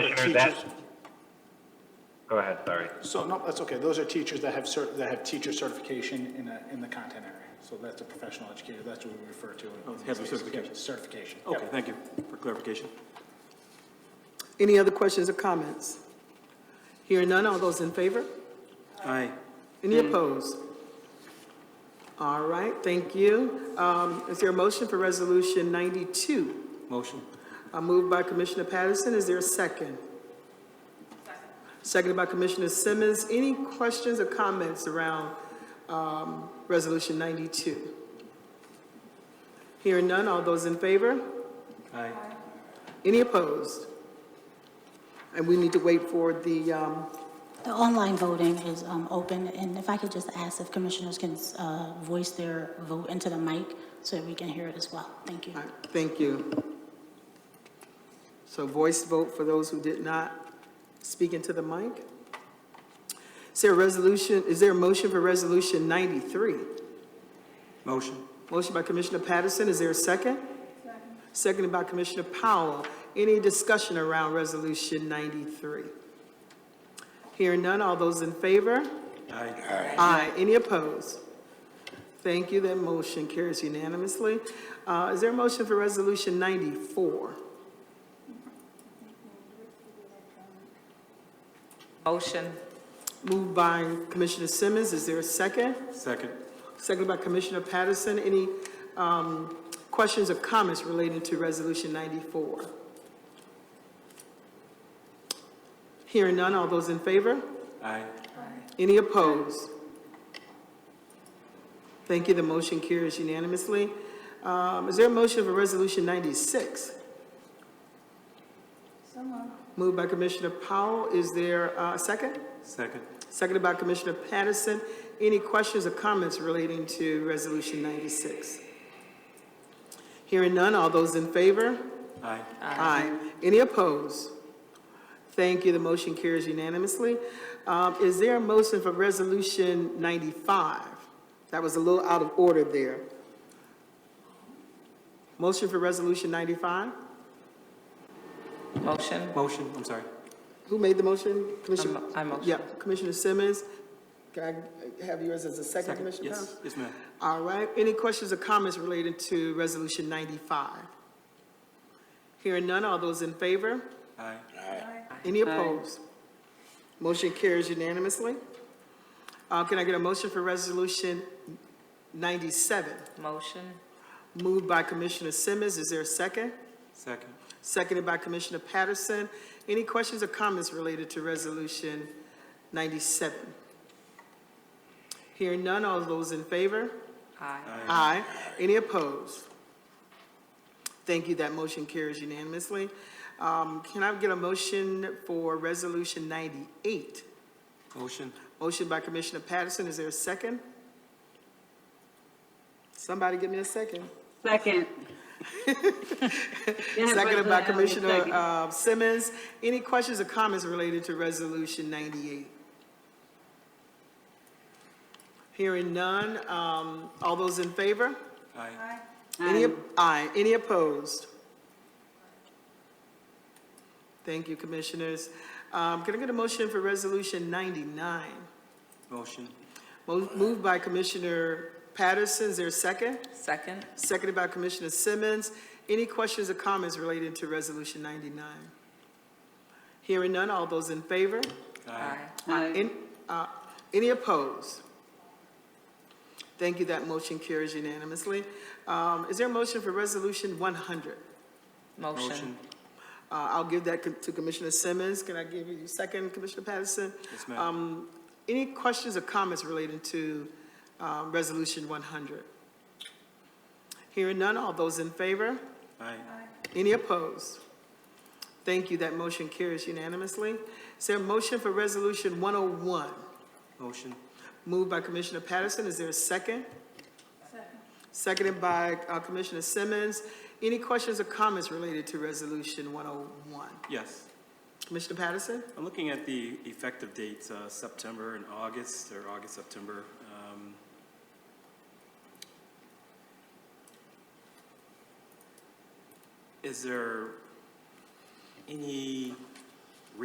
Whether that- teachers. Go ahead, sorry. So, no, that's okay. Those are teachers that have cert, that have teacher certification in a, in the content area. So that's a professional educator. That's what we refer to. in- Oh, they have the in these cases. Yeah, Certification. certification. Yep. Okay, thank you for clarification. Any other questions or comments? Hearing none, all those in favor? Aye. Any opposed? All right, thank you. Um, Is there a motion for Resolution 92? Motion. Uh, Moved by Commissioner Patterson, is there a second? Seconded by Commissioner Simmons. Any questions or comments around um, Resolution 92? Hearing none, all those in favor? Aye. Any opposed? And we need to wait for the, um, The online voting is um, open, and if I could just ask if commissioners can uh, voice their vote into the mic so that we can hear it as well. Thank you. all right, thank you. So voice vote for those who did not speak into the mic. Is there a resolution, is there a motion for Resolution 93? Motion. Motion by Commissioner Patterson, is there a second? Seconded by Commissioner Powell. Any discussion around Resolution 93? Hearing none, all those in favor? Aye. Aye. Any opposed? Thank you. That motion carries unanimously. Uh, Is there a motion for Resolution 94? Motion. Moved by Commissioner Simmons. Is there a second? Second. Seconded by Commissioner Patterson. Any um, questions or comments relating to Resolution 94? Hearing none. All those in favor? Aye. Any opposed? Thank you, the motion carries unanimously. Um, Is there a motion for Resolution 96? Moved by Commissioner Powell, is there uh, a second? Second. Seconded by Commissioner Patterson. Any questions or comments relating to Resolution 96? Hearing none, all those in favor? Aye. Aye. Any opposed? Thank you, the motion carries unanimously. Um, Is there a motion for Resolution 95? That was a little out of order there. Motion for Resolution 95? Motion. Motion, I'm sorry. Who made the motion? Commissioner? I motion. Yeah, Commissioner Simmons. Can I have yours as a second, Second. Commissioner Powell? Yes, yes, ma'am. All right, any questions or comments related to Resolution 95? Hearing none, all those in favor? Aye. Any opposed? Motion carries unanimously. Uh, Can I get a motion for Resolution 97? Motion. Moved by Commissioner Simmons, is there a second? Second. Seconded by Commissioner Patterson. Any questions or comments related to Resolution 97? Hearing none, all those in favor? Aye. Aye. Any opposed? Thank you, that motion carries unanimously. Um, Can I get a motion for Resolution 98? Motion. Motion by Commissioner Patterson, is there a second? Somebody give me a second. Second. Seconded by Commissioner uh, Simmons. Any questions or comments related to Resolution 98? Hearing none, um, all those in favor? Aye. Any, aye, any opposed? Thank you, Commissioners. Um, Can I get a motion for Resolution 99? Motion. Mo- Moved by Commissioner Patterson, is there a second? Second. Seconded by Commissioner Simmons. Any questions or comments related to Resolution 99? Hearing none, all those in favor? Aye. Aye. Any- uh, Any opposed? Thank you, that motion carries unanimously. Um, Is there a motion for Resolution 100? Motion. Motion. Uh, I'll give that co- to Commissioner Simmons. Can I give you second, Commissioner Patterson? Yes, ma'am. Any questions or comments relating to um, Resolution 100? Hearing none, all those in favor? Aye. Any opposed? Thank you, that motion carries unanimously. Is there a motion for Resolution 101? Motion. Moved by Commissioner Patterson, is there a second? Seconded by uh, Commissioner Simmons. Any questions or comments related to Resolution 101? Yes. Commissioner Patterson? I'm looking at the effective dates, uh, September and August, or August, September. um, Is there any